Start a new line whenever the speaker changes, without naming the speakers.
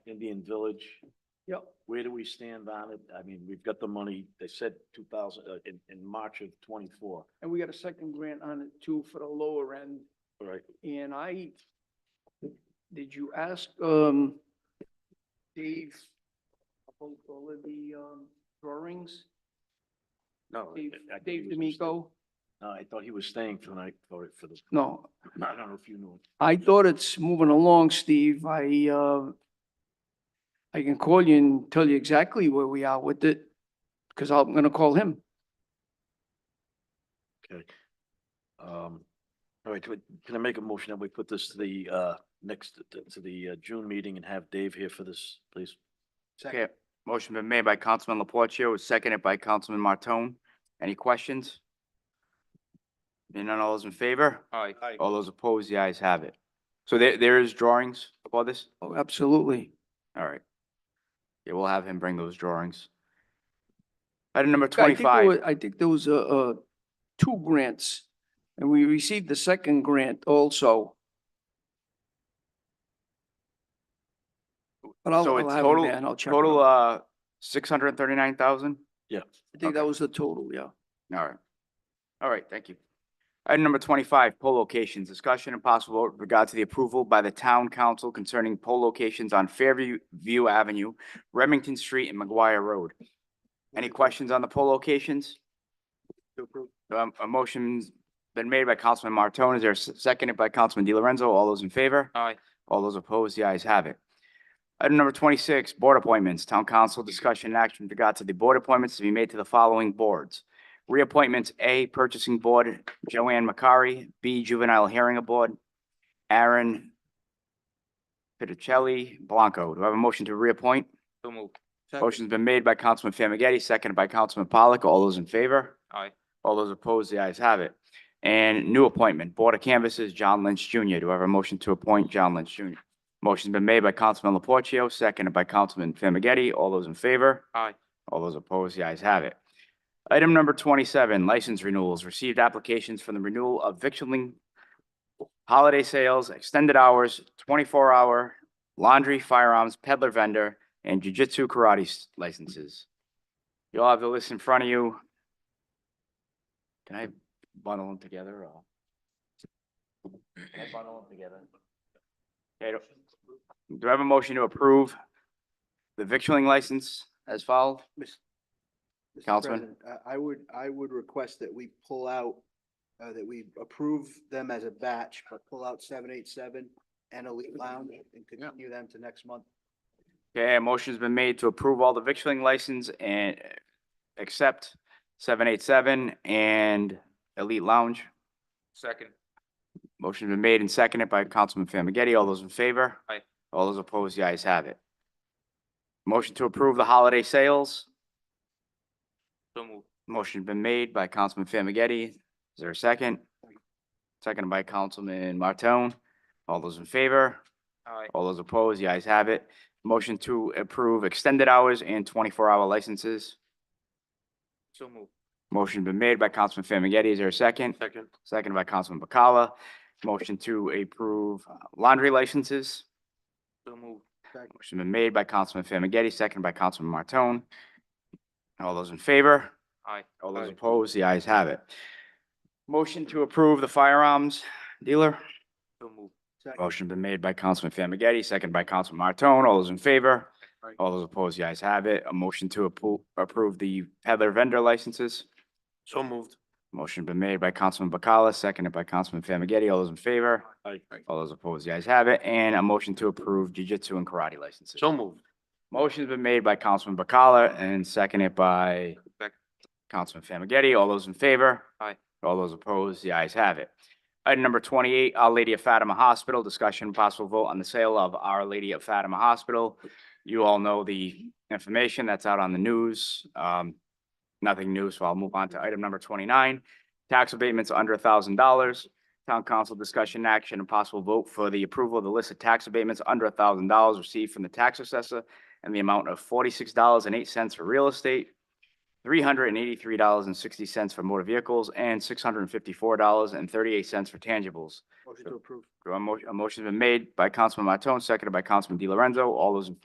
Indian Village,
Yep.
where do we stand on it? I mean, we've got the money, they said two thousand, uh, in, in March of twenty-four,
And we got a second grant on it too for the lower end.
right?
And I, did you ask, um, Dave about all of the, um, drawings?
No. I-
Dave,
I thought
Dave
he was gonna
D'Amico?
stay- No, I thought he was staying tonight for, for the,
No,
I don't know if you knew. it.
I thought it's moving along, Steve. I, uh, I can call you and tell you exactly where we are with it, because I'm gonna call him.
Okay. Um, all right, do I- can I make a motion that we put this to the, uh, next, to- to the, uh, June meeting and have Dave here for this, please?
Okay, motion been made by Councilman Laporte, seconded by Councilman Martone. Any questions? Being none, all those in favor? Aye. All those opposed, the ayes have it. So there, there is drawings for this?
Oh, Absolutely.
All right. Yeah, we'll have him bring those drawings. Item number
I think there
twenty-five,
were- I think there was, uh, uh, two grants, and we received the second grant also. But I'll,
So
I'll
it's
have him
total-
there and I'll check. it
total,
out.
uh, six hundred and thirty-nine thousand?
Yeah.
I think that was the total, yeah.
All right. All right, thank you. Item number twenty-five, poll locations. Discussion and possible vote with regard to the approval by the town council concerning poll locations on Fairview View Avenue, Remington Street, and McGuire Road. Any questions on the poll locations? Um, a motion's been made by Councilman Martone. Is there a s- seconded by Councilman Di Lorenzo? All those in favor? Aye. All those opposed? The ayes have it. Item number twenty-six, board appointments. Town council discussion and action with regard to the board appointments to be made to the following boards. Reappointments, A, Purchasing Board, Joanne Macari, B, Juvenile Hearing Board, Aaron Piticelli Blanco. Do I have a motion to reappoint?
So moved.
Motion's been made by Councilman Famagetti, seconded by Councilman Pollock. All those in favor?
Aye.
All those opposed, the ayes have it. And new appointment, Board of Canvassers, John Lynch Jr. Do I have a motion to appoint John Lynch Jr.? Motion's been made by Councilman Laportio, seconded by Councilman Famagetti. All those in favor?
Aye.
All those opposed, the ayes have it. Item number twenty-seven, license renewals. Received applications for the renewal of victualling, holiday sales, extended hours, twenty-four hour, laundry, firearms, peddler vendor, and jujitsu karate s- licenses. You all have the list in front of you. Can I bundle them together or? Can I bundle them together? Okay, do- do I have a motion to approve the victualling license as filed?
Mr.
Councilman?
President, I I would, I would request that we pull out, uh, that we approve them as a batch, but pull out seven eight seven and Elite Lounge and continue them to next month.
Okay, a motion's been made to approve all the victualling license and uh, accept seven eight seven and Elite Lounge.
Second.
Motion's been made and seconded by Councilman Famagetti. All those in favor?
Aye.
All those opposed, the ayes have it. Motion to approve the holiday sales.
So moved.
Motion's been made by Councilman Famagetti. Is there a second? Seconded by Councilman Martone. All those in favor?
Aye.
All those opposed, the ayes have it. Motion to approve extended hours and twenty-four hour licenses.
So moved.
Motion been made by Councilman Famagetti. Is there a second?
Second.
Second by Councilman Bacala. Motion to approve uh, laundry licenses.
So moved.
Motion been made by Councilman Famagetti, second by Councilman Martone. All those in favor?
Aye.
All those
Aye.
opposed? The ayes have it. Motion to approve the firearms dealer.
So moved.
Second.
Motion been made by Councilman Famagetti, second by Councilman Martone. All those in favor?
Aye.
All those opposed? The ayes have it. A motion to appro- approve the peddler vendor licenses.
So moved.
Motion been made by Councilman Bacala, seconded by Councilman Famagetti. All those in favor?
Aye.
All those opposed? The ayes have it. And a motion to approve jiu-jitsu and karate licenses.
So moved.
Motion's been made by Councilman Bacala and seconded by
Second.
Councilman Famagetti. All those in favor?
Aye.
All those opposed? The ayes have it. Item number twenty-eight, Our Lady of Fatima Hospital, discussion and possible vote on the sale of Our Lady of Fatima Hospital. You all know the information that's out on the news. Um, nothing new, so I'll move on to item number twenty-nine. Tax abatements under thousand dollars. Town council discussion action and possible vote for the approval of the list of tax abatements under thousand dollars received from the tax assessor and the amount of forty-six dollars and eight cents for real estate, three hundred and eighty-three dollars and sixty cents for motor vehicles, and six hundred and fifty-four dollars and thirty-eight cents for tangibles.
Motion to approve.
Do I mo- A motion's been made by Councilman Martone, seconded by Councilman Di Lorenzo. All those in